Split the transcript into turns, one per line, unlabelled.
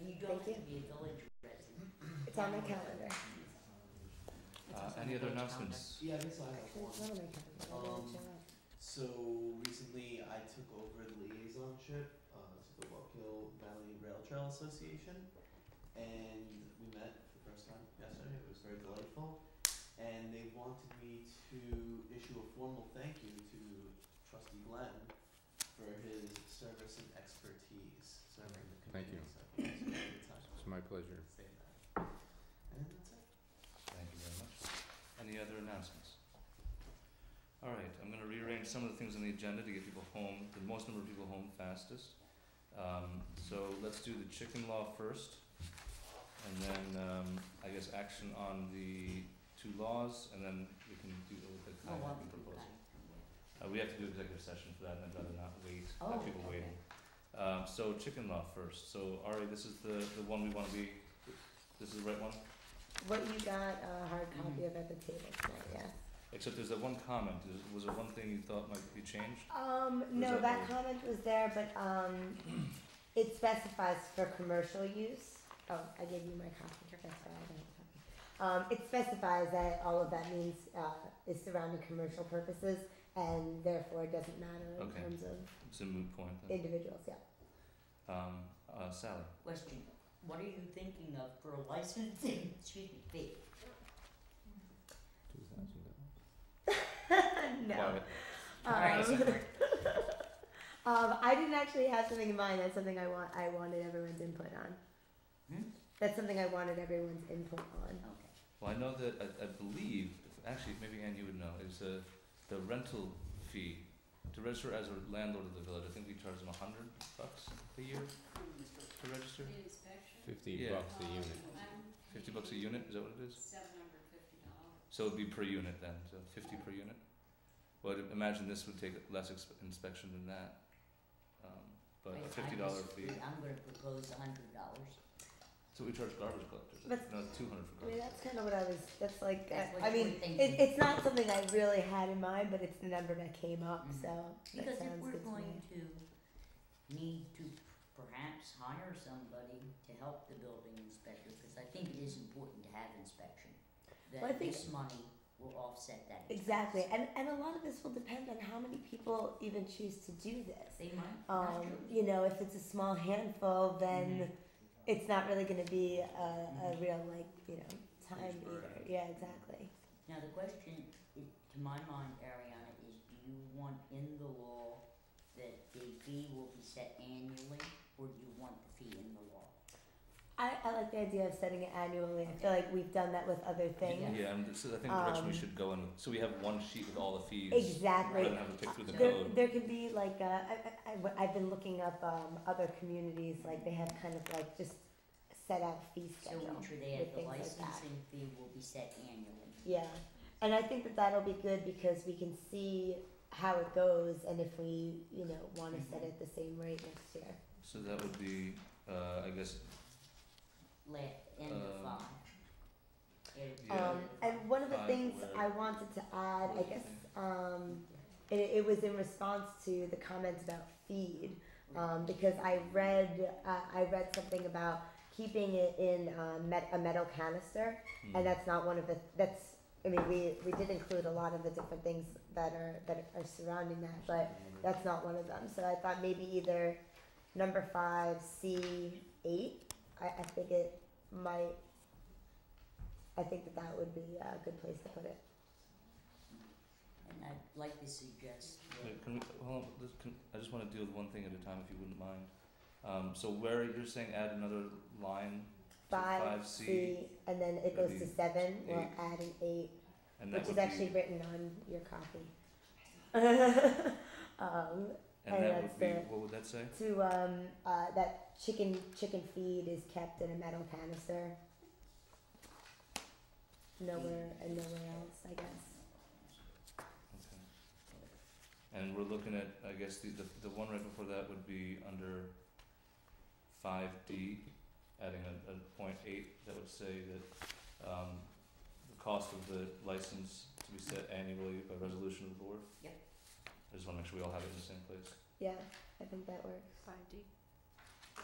You don't
Thank you.
have to be a village resident.
It's on my calendar.
It's
Uh,
also on
any
the
other
village
announcements?
Yeah, I guess
Um,
I have
Actually, it's
one.
not on my calendar. I gotta
Um,
check out.
So recently I took over the liaisonship uh, to the Wapkill Valley Rail Trail Association. And we met for the first time yesterday. It was very delightful. And they wanted me to issue a formal thank you to Trustee Glenn for his service and expertise serving the
Thank
community.
you.
So it's really touched
It's my pleasure.
to say that. And that's it.
Thank you very much. Any other announcements? All right, I'm gonna rearrange some of the things on the agenda to get people home, the most number of people home fastest. Um, so let's do the chicken law first. And then, um, I guess action on the two laws, and then we can do the
Oh,
kind
well,
of proposal.
okay.
Uh, we have to do executive session for that, and I'd rather not wait,
Oh,
have people waiting.
okay.
Um, so chicken law first, so Ari, this is the, the one we wanna be, this is the right one?
What you got uh, a hard copy
Mhm.
of at the table tonight,
Mm-hmm.
yeah?
Except there's that one comment, Is- was there one thing you thought might be changed?
Um,
that
no, that
old?
comment was there, but, um, it specifies for commercial use. Oh, I gave you my copy, that's why I don't have a copy. Um, it specifies that all of that means, uh, is surrounding commercial purposes and therefore it doesn't matter in
Okay.
terms of
It's a moot point then.
individuals, yeah.
Um, uh, Sally,
Question, what are you thinking of for a licensing, excuse me, fee?
Two thousand dollars.
No.
quiet,
Alright,
Um, um, I didn't actually have something in mind. That's something I want. I wanted everyone's input on.
Hmm?
That's something I wanted everyone's input on.
okay.
well, I know that, I, I believe, actually, maybe Ann, you would know, is uh, the rental fee to register as a landlord of the village, I think we charge them a hundred bucks a year to register?
Fifty
Yeah. Uh,
bucks a unit.
Fifty bucks a unit, is that what it is? Seven hundred fifty dollars. So it'd be per unit then, so fifty per unit? Well, I'd imagine this would take less exp- inspection than that, um, but
Wait,
a
I
fifty dollar
just-
fee,
I'm gonna propose a hundred dollars.
so we charge garbage collectors,
But-
no, two hundred
I
for
mean,
garbage.
that's kind of what I was. That's like.
That's
I,
what
I
you
mean,
were thinking.
it, it's not something I really had in mind, but it's the number that came up.
Mhm.
So that
Because if
sounds
we're
good to me.
going to need to perhaps hire somebody to help the building inspector, cause I think it is important to have inspection.
Well, I
That
think-
this money will offset that. expense.
Exactly, and and a lot of this will depend on how many people even choose to do this.
They might not
um,
choose.
you know, if it's a small handful, then
Mhm.
it's not really going to be a, a real like you know time
Huge
either.
burden.
Yeah, exactly.
Now, the question, i- to my mind, Ariana, is do you want in the law that the fee will be set annually, or do you want the fee in the law?
I, I like the idea of setting it annually. I feel like we've done that with other things.
Yeah, and this is, I think the direction we
Um,
should go in, with- so we have one sheet with all the fees.
Exactly.
Rather than have to pick through the
There,
code.
there can be like uh, I, I, have been looking up um, other communities like they have kind of like just set out a fee
So
schedule
each
with
of the, the
things like that.
licensing fee will be set annually.
Yeah, and I think that that'll be good because we can see how it goes and if we you know want to set
Mhm.
it the same rate next year.
So that would be, uh, I guess,
Let, end of
Um,
five. End of
Yeah.
Um, and one of the
Five
things
word.
I wanted to add, I
Word
guess,
thing.
um, it, it was in response to the comments about feed, um, because I read, uh, I read something about keeping it in, um, met, a metal canister,
hmm,
and that's not one of the, that's, I mean, we, we did include a lot of the different things that are, that are surrounding that, but that's not one of them, so I thought maybe either number five, C eight, I, I think it might, I think that that would be a good place to put it.
And I'd like to suggest that,
wait, can we, hold on, this can, I just wanna deal with one thing at a time if you wouldn't mind. Um, so where, you're saying add another line to
Five,
five C,
C, and then it goes to
maybe
seven, we'll
eight.
add an eight,
and that
which
would
is
be,
actually written on your copy. Um,
and that
that's
would be,
the-
what would that say?
to, um, uh, that chicken, chicken feed is kept in a metal canister. Nowhere, and nowhere else, I guess.
Okay. And we're looking at, I guess, the, the, the one right before that would be under five D, adding a, a point eight, that would say that, um, the cost of the license to be set annually by resolution of the board?
Yep.
I just wanna make sure we all have it in the same place.
Yeah, I think that works.
Five D.